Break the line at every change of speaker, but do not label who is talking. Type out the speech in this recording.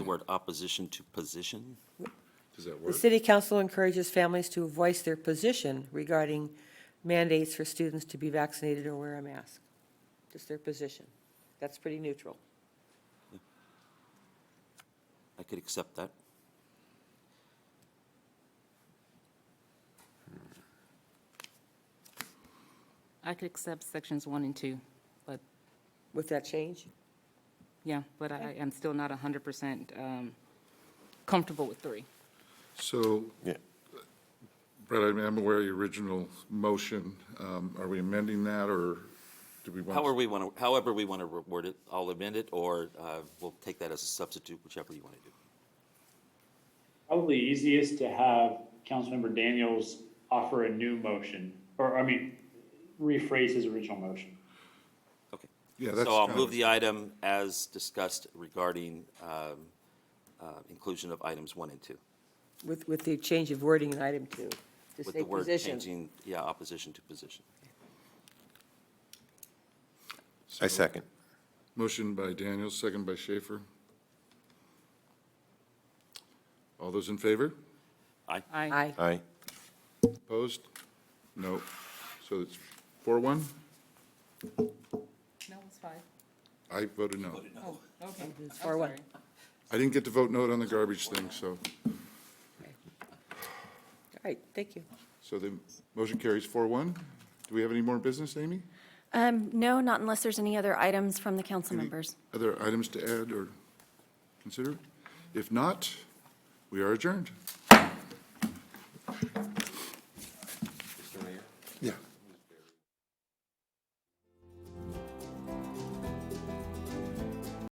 word opposition to position?
Does that
The
work?
city council encourages families to voice their position regarding mandates for students to be vaccinated or wear a mask. Just their position. That's pretty neutral.
I could accept that.
I could accept sections one and two, but,
With that change?
yeah, but I am still not 100% um, comfortable with three.
So,
Yeah.
Brett, I'm- I'm aware of your original motion. Um, Are we amending that, or do we want?
However we want to, however we want to word it, I'll amend it, or uh, we'll take that as a substitute, whichever you want to do.
Probably easiest to have Councilmember Daniels offer a new motion, or, I mean, rephrase his original motion.
Okay.
Yeah, that's
So I'll
kind
move
of-
the item as discussed regarding um, uh, inclusion of items one and two.
With, with the change of wording in item two. To
With the
say
word
position.
changing, yeah, opposition to position.
I second.
Motion by Daniels, second by Schaefer. All those in favor?
Aye.
I
Aye.
Aye.
Opposed? No. So it's four one?
No, it's five.
I voted no.
Oh, okay.
It's four one.
I didn't get to vote no on the garbage thing, so,
All right, thank you.
so the motion carries four one. Do we have any more business, Amy?
Um, No, not unless there's any other items from the council
Any
members.
Other items to add or consider? If not, we are adjourned.